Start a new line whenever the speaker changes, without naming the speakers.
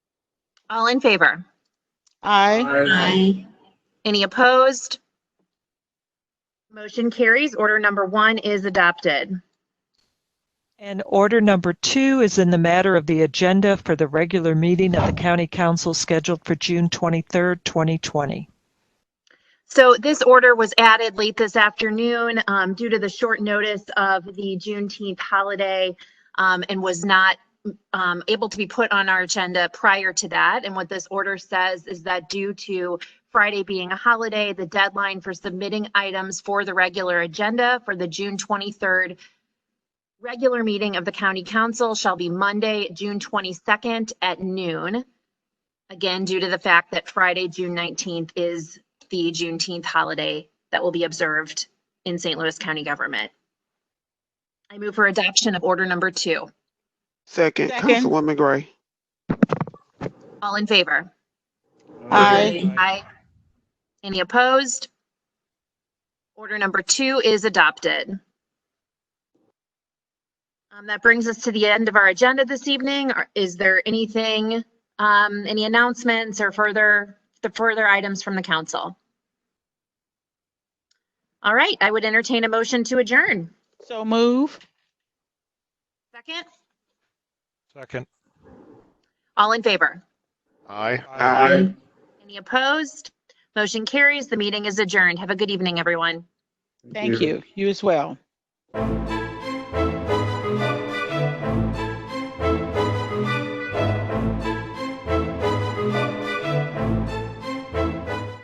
All in favor?
Aye.
Aye.
Any opposed? Motion carries. Order number one is adopted.
And order number two is in the matter of the agenda for the regular meeting of the county council scheduled for June 23rd, 2020.
So this order was added late this afternoon um, due to the short notice of the Juneteenth holiday um, and was not um, able to be put on our agenda prior to that. And what this order says is that due to Friday being a holiday, the deadline for submitting items for the regular agenda for the June 23rd regular meeting of the county council shall be Monday, June 22nd at noon. Again, due to the fact that Friday, June 19th is the Juneteenth holiday that will be observed in St. Louis County government. I move for adoption of order number two.
Second,
Second.
Councilwoman Gray.
All in favor?
Aye.
Aye. Any opposed? Order number two is adopted. Um, that brings us to the end of our agenda this evening. Are- Is there anything, um, any announcements or further, the further items from the council? All right, I would entertain a motion to adjourn.
So move.
Second,
Second.
all in favor?
Aye.
Aye.
Any opposed? Motion carries. The meeting is adjourned. Have a good evening, everyone.
Thank you. You as well.